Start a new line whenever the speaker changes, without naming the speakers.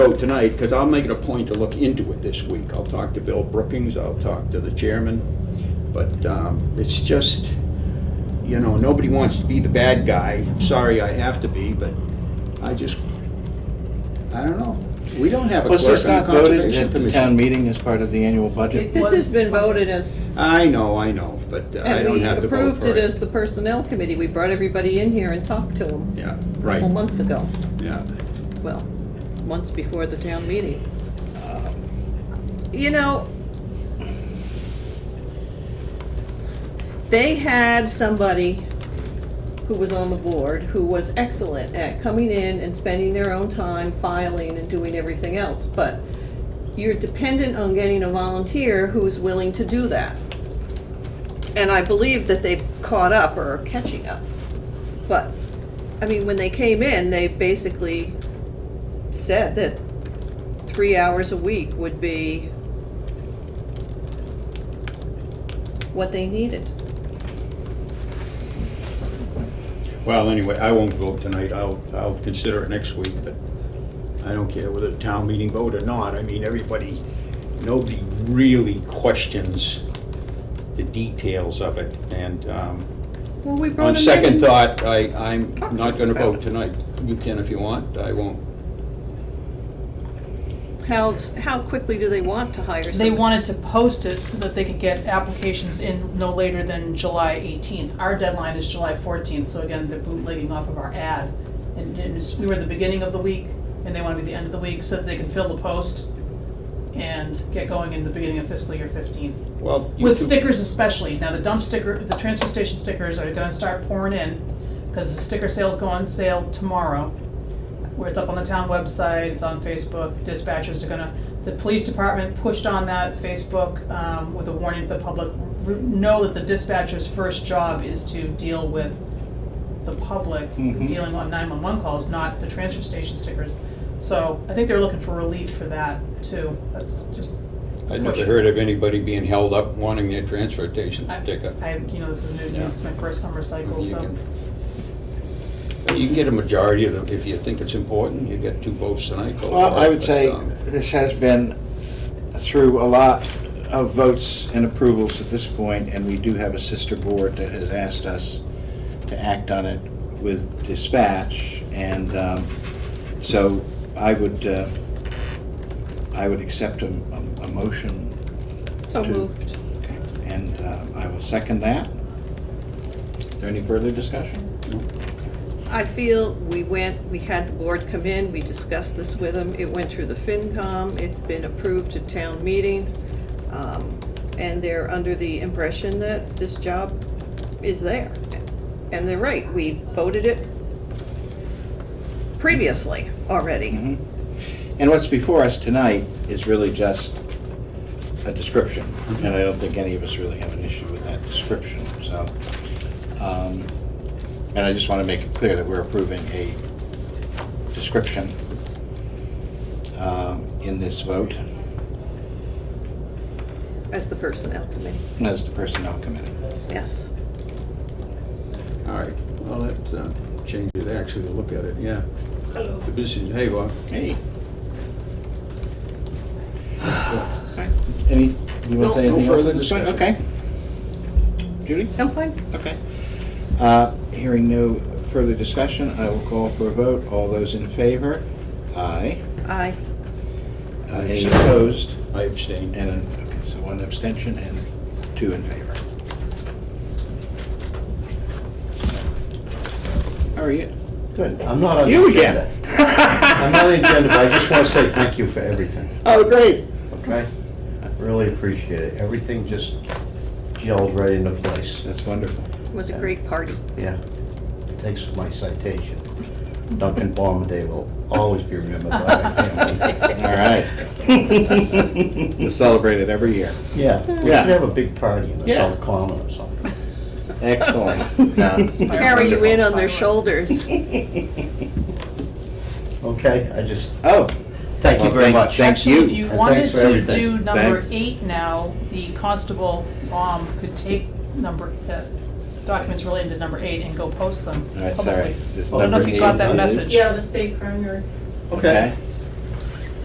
vote tonight, because I'll make it a point to look into it this week. I'll talk to Bill Brookings, I'll talk to the chairman, but um, it's just, you know, nobody wants to be the bad guy. Sorry, I have to be, but I just, I don't know. We don't have a
Was
clerk
this
on the
not voted
Conservation
at the
Commission.
town meeting as part of the annual budget?
This has been voted as,
I know, I know, but uh, I
and
don't
we
have to vote
approved
for
it as
it.
the personnel committee. We brought everybody in here and talked to them
Yeah,
a couple
right,
months ago.
yeah.
Well, months before the town meeting. You know, they had somebody who was on the board who was excellent at coming in and spending their own time filing and doing everything else, but you're dependent on getting a volunteer who's willing to do that. And I believe that they've caught up or are catching up. But, I mean, when they came in, they basically said that three hours a week would be what they needed.
Well, anyway, I won't vote tonight, I'll, I'll consider it next week, but I don't care whether the town meeting vote or not, I mean, everybody, nobody really questions the details of it, and, um,
Well, we brought
on
them in.
second thought, I, I'm not gonna vote tonight. You can if you want, I won't.
How, how quickly do they want to hire somebody?
They wanted to post it so that they could get applications in no later than July 18th. Our deadline is July 14th, so again, they're bootlegging off of our ad. And it was- we were at the beginning of the week, and they want to be the end of the week, so that they can fill the post and get going in the beginning of fiscal year 15.
Well, you
With
two-
stickers especially. Now, the dump sticker, the transfer station stickers are gonna start pouring in, because the sticker sales go on sale tomorrow where it's up on the town website, it's on Facebook, dispatchers are gonna, the police department pushed on that Facebook, um, with a warning to the public, r- know that the dispatcher's first job is to deal with the public,
Mhm.
dealing on nine-one-one calls, not the transfer station stickers. So I think they're looking for relief for that too, that's just.
I never heard of anybody being held up wanting their transfer station
I-
sticker.
I, you know, this is new, to me.
Yeah.
it's my first summer cycle,
You
so.
can- You can get a majority of them, if you think it's important, you get two votes tonight. go
Well,
for
I
it,
would
but,
say
um,
this has been through a lot of votes and approvals at this point, and we do have a sister board that has asked us to act on it with dispatch, and um, so I would, uh, I would accept a, a- a motion,
So
to-
moved.
and uh, I will second that. Is there any further discussion?
I feel we went, we had the board come in, we discussed this with them, it went through the FinCom, it's been approved at town meeting, um, and they're under the impression that this job is there. And they're right, we voted it previously already.
Mhm. And what's before us tonight is really just a description, and I don't think any of us really have an issue with that description, so. um, And I just want to make it clear that we're approving a description um, in this vote
As the personnel committee,
as the personnel committee.
yes.
All right, well, that uh, changes it actually to look at it, yeah. Hello. The business, hey, Bob.
Hey. Any, you
No,
want to say
no
anything else?
further
at this point?
discussion.
Okay. Judy?
I'm fine.
Okay. Uh, Hearing no further discussion, I will call for a vote. All those in favor? Aye.
Aye.
Uh, Any opposed?
I abstained.
And, an- okay, so one abstention and two in favor. How are you?
Good, I'm not on the
You
agenda.
again?
I'm not on the agenda, but I just want to say thank you for everything,
Oh, great.
okay? Really appreciate it. Everything just gelled right into place.
That's wonderful.
It was a great party.
Yeah. Thanks for my citation. Duncan Bombaday will always be remembered by my family.
All right. We celebrate it every year.
Yeah, we should
Yeah.
have a big party in the
Yeah.
South Common or something.
Excellent. Yeah.
Carry you in on their shoulders.
Okay, I just,
Oh,
thank you
Well,
very
thank-
much.
thank- you.
Actually, if you
And
wanted
thanks for
to
everything.
do number
Thanks.
eight now, the constable um, could take number, uh, documents related to number eight and go post them
all right,
publicly.
sorry. This
I don't know if
number
you got
eight
that
is-
message.
Yeah, the state primary.
Okay,